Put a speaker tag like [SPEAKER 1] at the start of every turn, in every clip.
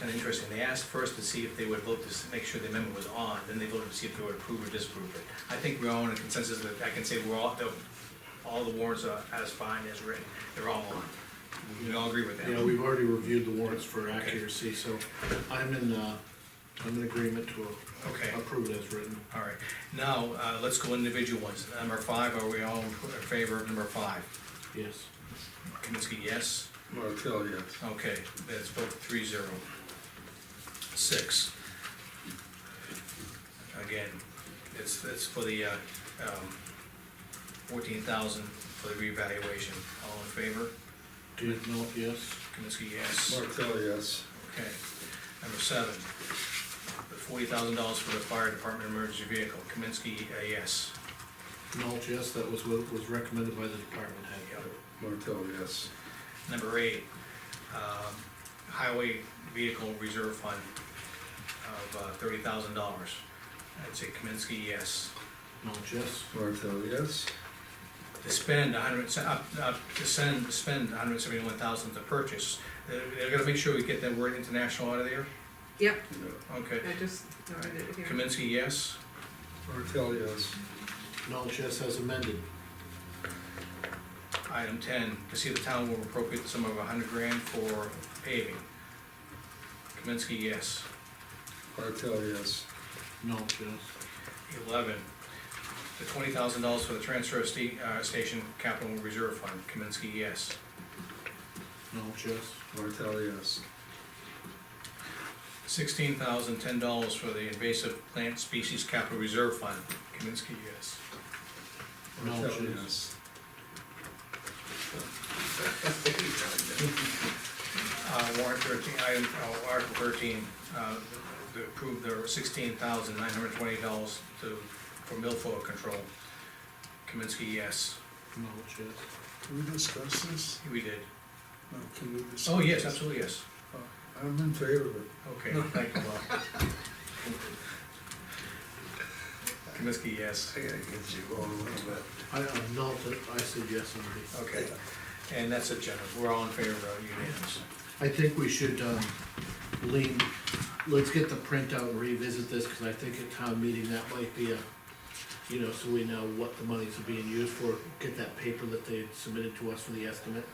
[SPEAKER 1] kind of interesting, they asked first to see if they would vote to s- make sure the amendment was on, then they voted to see if they would approve or disapprove it. I think we're all in a consensus that I can say we're all, the- all the warrants are as fine as written, they're all on. We all agree with that.
[SPEAKER 2] Yeah, we've already reviewed the warrants for accuracy, so I'm in, uh, I'm in agreement to
[SPEAKER 1] Okay,
[SPEAKER 2] approve it as written.
[SPEAKER 1] all right. Now, uh, let's go individual ones. Number five, are we all in favor of number five?
[SPEAKER 2] Yes.
[SPEAKER 1] Kaminsky, yes?
[SPEAKER 3] Martel, yes.
[SPEAKER 1] Okay, that's vote three zero. Six. Again, it's, it's for the, uh, um, fourteen thousand for the revaluation. All in favor?
[SPEAKER 2] Dudnoff, yes.
[SPEAKER 1] Kaminsky, yes.
[SPEAKER 3] Martel, yes.
[SPEAKER 1] Okay. Number seven, the forty thousand dollars for the fire department emergency vehicle. Kaminsky, uh, yes.
[SPEAKER 2] Knowles, yes, that was what was recommended by the department head.
[SPEAKER 3] Martel, yes.
[SPEAKER 1] Number eight, um, highway vehicle reserve fund of uh, thirty thousand dollars. I'd say Kaminsky, yes.
[SPEAKER 2] Knowles, yes.
[SPEAKER 3] Martel, yes.
[SPEAKER 1] To spend a hundred, se- up, up, to send, spend hundred seventy-one thousand to purchase. They're, they're gonna make sure we get that word international out of there,
[SPEAKER 4] Yep,
[SPEAKER 3] Yeah.
[SPEAKER 1] okay.
[SPEAKER 4] I just noted it here.
[SPEAKER 1] Kaminsky, yes.
[SPEAKER 3] Martel, yes.
[SPEAKER 2] Knowles, yes, as amended.
[SPEAKER 1] Item ten, to see if the town will appropriate the sum of a hundred grand for paving. Kaminsky, yes.
[SPEAKER 3] Martel, yes.
[SPEAKER 2] Knowles, yes.
[SPEAKER 1] Eleven, the twenty thousand dollars for the transfer sta- uh, station capital reserve fund, Kaminsky, yes.
[SPEAKER 2] Knowles, yes.
[SPEAKER 3] Martel, yes.
[SPEAKER 1] Sixteen thousand ten dollars for the invasive plant species capital reserve fund, Kaminsky, yes.
[SPEAKER 2] Knowles,
[SPEAKER 3] Martel,
[SPEAKER 2] yes.
[SPEAKER 3] yes.
[SPEAKER 1] Uh, warrant thirteen, item, uh, article thirteen, uh, to approve the sixteen thousand nine hundred twenty dollars to, for milfoil control, Kaminsky, yes.
[SPEAKER 2] Knowles, yes.
[SPEAKER 3] Can we discuss this?
[SPEAKER 1] We did.
[SPEAKER 3] No, can we discuss?
[SPEAKER 1] Oh, yes,
[SPEAKER 3] this?
[SPEAKER 1] absolutely, yes.
[SPEAKER 3] I'm in favor of it.
[SPEAKER 1] Okay, thank you, Bob. Kaminsky, yes.
[SPEAKER 3] I gotta get you going a little bit.
[SPEAKER 2] I, uh, Knowles, I said yes already.
[SPEAKER 1] Okay, and that's it, Jennifer. We're all in favor of unanimous.
[SPEAKER 2] I think we should, um, lean, let's get the printout and revisit this, cause I think at town meeting, that might be a, you know, so we know what the monies are being used for, get that paper that they submitted to us for the estimate,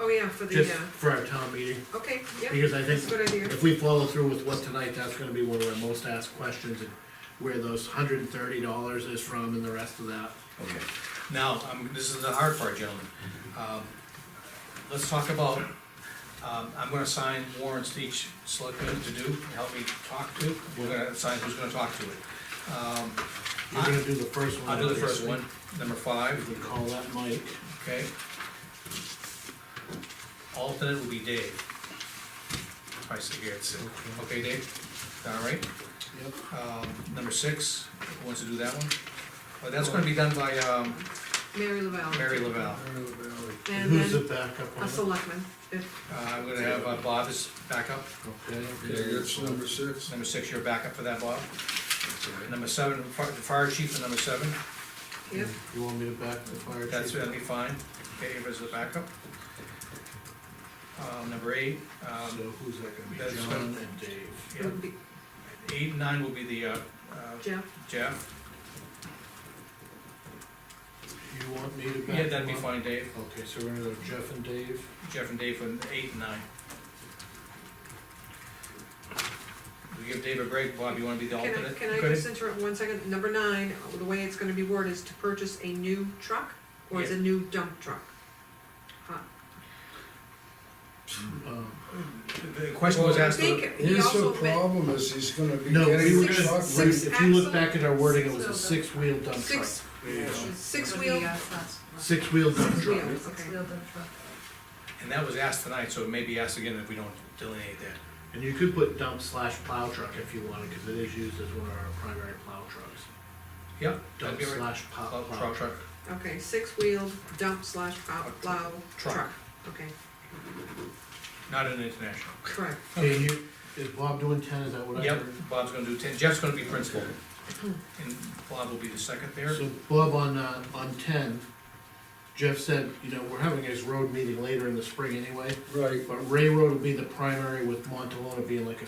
[SPEAKER 4] Oh, yeah, for the,
[SPEAKER 2] just
[SPEAKER 4] uh,
[SPEAKER 2] for our town meeting,
[SPEAKER 4] okay, yep,
[SPEAKER 2] because I
[SPEAKER 4] that's a
[SPEAKER 2] think
[SPEAKER 4] good idea.
[SPEAKER 2] if we follow through with what tonight, that's gonna be one of our most asked questions, and where those hundred and thirty dollars is from and the rest of that.
[SPEAKER 1] Okay, now, um, this is the hard part, gentlemen. Um, Let's talk about, um, I'm gonna sign warrants to each selectman to do, help me talk to. We're gonna assign who's gonna talk to it. Um,
[SPEAKER 2] You're gonna do the first one.
[SPEAKER 1] I'll do the first
[SPEAKER 2] obviously.
[SPEAKER 1] one, number
[SPEAKER 2] We
[SPEAKER 1] five,
[SPEAKER 2] can call that Mike,
[SPEAKER 1] okay? Alternate will be Dave. I see here, it's, okay, Dave? All right?
[SPEAKER 2] yep,
[SPEAKER 1] Um, number six, who wants to do that one? Well, that's gonna be done by, um,
[SPEAKER 4] Mary Lavelle.
[SPEAKER 1] Mary Lavelle.
[SPEAKER 3] Down the valley.
[SPEAKER 4] And
[SPEAKER 2] who's the
[SPEAKER 4] then
[SPEAKER 2] backup on
[SPEAKER 4] a
[SPEAKER 2] it?
[SPEAKER 4] selectman, if,
[SPEAKER 1] Uh, I'm gonna have uh, Bob as backup,
[SPEAKER 2] Okay.
[SPEAKER 3] Okay, that's number six.
[SPEAKER 1] number six, your backup for that, Bob. Number seven, fi- the fire chief for number seven,
[SPEAKER 4] yep,
[SPEAKER 2] You want me to back the fire chief?
[SPEAKER 1] that's, that'd be fine, Dave as the backup. Um, number eight,
[SPEAKER 2] So
[SPEAKER 1] um,
[SPEAKER 2] who's that gonna be,
[SPEAKER 1] That's
[SPEAKER 2] John and Dave?
[SPEAKER 1] yeah,
[SPEAKER 4] would be
[SPEAKER 1] eight and nine will be the, uh, uh,
[SPEAKER 4] Jeff.
[SPEAKER 1] Jeff.
[SPEAKER 2] You want me to back
[SPEAKER 1] Yeah, that'd be
[SPEAKER 2] them up?
[SPEAKER 1] fine, Dave,
[SPEAKER 2] Okay, so we're gonna go Jeff and Dave,
[SPEAKER 1] Jeff and Dave for eight and nine. We give Dave a break, Bob, you wanna be the
[SPEAKER 4] Can I,
[SPEAKER 1] alternate?
[SPEAKER 4] can I
[SPEAKER 1] Go ahead.
[SPEAKER 4] just interrupt one second? Number nine, the way it's gonna be worded is to purchase a new truck, or is
[SPEAKER 1] Yeah.
[SPEAKER 4] a new dump truck? Huh.
[SPEAKER 2] um,
[SPEAKER 1] The question was
[SPEAKER 4] I
[SPEAKER 1] asked,
[SPEAKER 4] think he
[SPEAKER 3] Here's the
[SPEAKER 4] also meant
[SPEAKER 3] problem is he's gonna be
[SPEAKER 2] no, we were
[SPEAKER 3] getting
[SPEAKER 4] Six-
[SPEAKER 2] gonna,
[SPEAKER 3] shot.
[SPEAKER 4] six-
[SPEAKER 2] wait, if you look
[SPEAKER 4] axle,
[SPEAKER 2] back at our wording, it was a six-wheel
[SPEAKER 4] six-wheel
[SPEAKER 2] dump truck.
[SPEAKER 4] six,
[SPEAKER 5] Six-wheel.
[SPEAKER 4] six-wheel,
[SPEAKER 2] Six-wheel dump truck,
[SPEAKER 4] Six-wheel.
[SPEAKER 5] Six-wheel dump truck.
[SPEAKER 1] and that was asked tonight, so it may be asked again if we don't delineate that.
[SPEAKER 2] and you could put dump slash plow truck if you wanted, cause it is used as one of our primary plow trucks.
[SPEAKER 1] Yep. that'd
[SPEAKER 2] Dump
[SPEAKER 1] be all right.
[SPEAKER 2] slash plow,
[SPEAKER 1] Plow,
[SPEAKER 2] plow
[SPEAKER 1] truck,
[SPEAKER 2] truck.
[SPEAKER 1] truck,
[SPEAKER 4] okay, six-wheel dump slash plow, plow
[SPEAKER 1] Truck.
[SPEAKER 4] truck, okay,
[SPEAKER 1] not an international.
[SPEAKER 4] correct.
[SPEAKER 2] Okay, you, is Bob doing ten, is that what I
[SPEAKER 1] Yep,
[SPEAKER 2] heard?
[SPEAKER 1] Bob's gonna do ten, Jeff's gonna be principal, and Bob will be the second there.
[SPEAKER 2] So Bob, on, uh, on ten, Jeff said, you know, we're having his road meeting later in the spring anyway,
[SPEAKER 3] Right.
[SPEAKER 2] but Ray Road will be the primary with Montalona being like a